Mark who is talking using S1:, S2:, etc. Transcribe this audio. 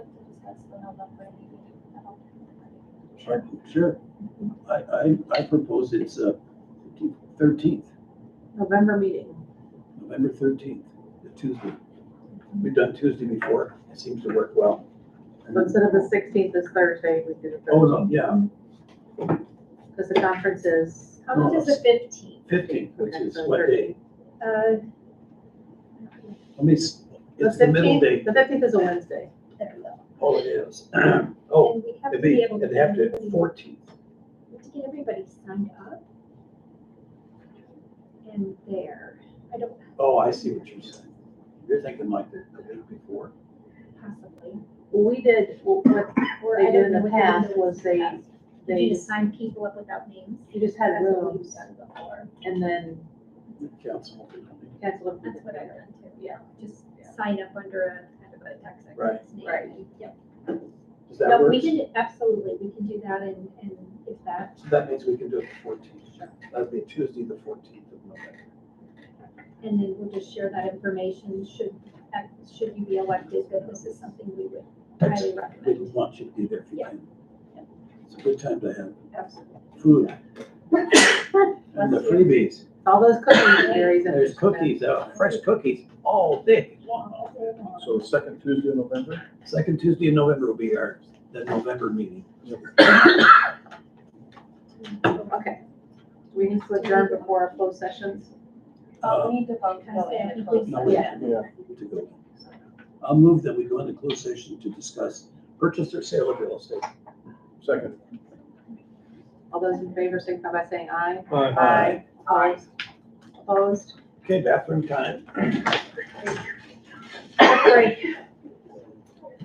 S1: that's the November meeting. I don't think we're ready.
S2: Sure. Sure. I, I, I propose it's uh, thirteenth,
S3: November meeting.
S2: November thirteenth, the Tuesday. We've done Tuesday before, it seems to work well.
S3: So instead of the sixteenth is Thursday, we do
S2: Oh,
S3: the,
S2: no, yeah,
S3: because the conference is,
S1: How much is the fifteenth?
S2: fifteenth, which is what day?
S1: Uh,
S2: Let me, s-
S3: the
S2: it's the middle day.
S3: fifteenth, the fifteenth is a Wednesday.
S1: there we go.
S2: Oh, it is. Oh,
S1: And we have to
S2: it'd
S1: be
S2: be,
S1: able to.
S2: it'd
S1: get
S2: have to,
S1: everybody-
S2: fourteenth.
S1: we have To get everybody signed up. And there, I don't
S2: Oh, I see what you're saying. You're thinking like the, the week before.
S1: possibly.
S3: We did, well, what
S1: or
S3: They
S1: I
S3: did
S1: don't
S3: in
S1: know
S3: the
S1: what they're gonna
S3: past
S1: do in
S3: was
S1: the
S3: they-
S1: past. You
S3: they,
S1: need to
S3: just-
S1: sign people up without names.
S3: you just had
S1: That's what we've
S3: rooms
S1: done before.
S3: and then
S2: The council.
S3: canceled. it.
S1: That's what I've done too.
S3: Yeah.
S1: Just
S3: Yeah.
S1: sign up under a kind of a tax
S2: Right.
S1: exempt name.
S3: Right.
S1: Yep.
S2: Does that
S1: No,
S2: work?
S1: we can, absolutely, we can do that and, and if that,
S2: So that means we can do it the fourteenth. That'd be Tuesday, the fourteenth of November.
S1: and then we'll just share that information should, uh, should you be elected, that this is something we would highly
S2: We
S1: recommend.
S2: want you to be there if you
S1: Yeah.
S2: can.
S1: Yeah.
S2: It's a good time to have
S1: Absolutely.
S2: food and the
S1: Bless you.
S2: freebies.
S3: All those cookies, Gary's. and-
S2: There's cookies, uh, fresh cookies all day long.
S4: So second Tuesday in November?
S2: Second Tuesday in November will be our, the November meeting.
S3: Okay. Do We need to adjourn before our closed sessions.
S2: Uh,
S1: Oh,
S5: we need to vote.
S1: Kind of say, I think we-
S2: No, we
S3: Yeah.
S2: have to go. I'll move that we go into closed session to discuss purchase or sale of real estate.
S4: Second.
S3: All those in favor signify by saying aye.
S2: Aye.
S3: Aye. Opposed?
S2: Okay, bathroom time.
S3: Break.